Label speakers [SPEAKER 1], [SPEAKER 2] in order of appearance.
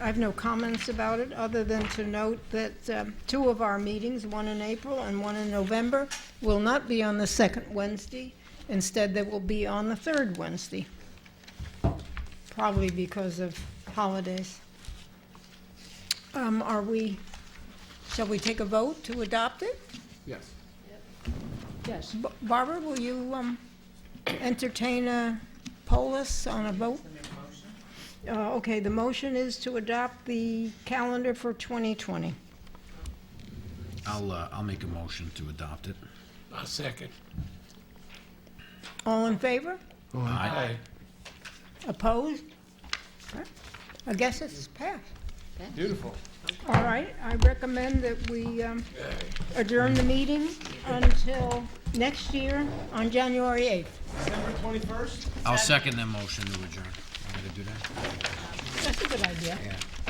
[SPEAKER 1] I have no comments about it, other than to note that um, two of our meetings, one in April and one in November, will not be on the second Wednesday. Instead, they will be on the third Wednesday, probably because of holidays. Um, Are we, shall we take a vote to adopt it?
[SPEAKER 2] Yes.
[SPEAKER 3] Yes.
[SPEAKER 1] B- Barbara, will you um, entertain a polis on a vote? Uh, Okay, the motion is to adopt the calendar for 2020.
[SPEAKER 4] I'll, uh, I'll make a motion to adopt it.
[SPEAKER 2] A second.
[SPEAKER 1] All in favor?
[SPEAKER 4] Aye.
[SPEAKER 1] Opposed? I guess it's passed.
[SPEAKER 2] Beautiful.
[SPEAKER 1] All right, I recommend that we um, adjourn the meeting until next year on January 8th.
[SPEAKER 2] December twenty-first?
[SPEAKER 4] I'll second the motion to adjourn. I'm gonna do that.
[SPEAKER 1] That's a good idea.
[SPEAKER 4] Yeah.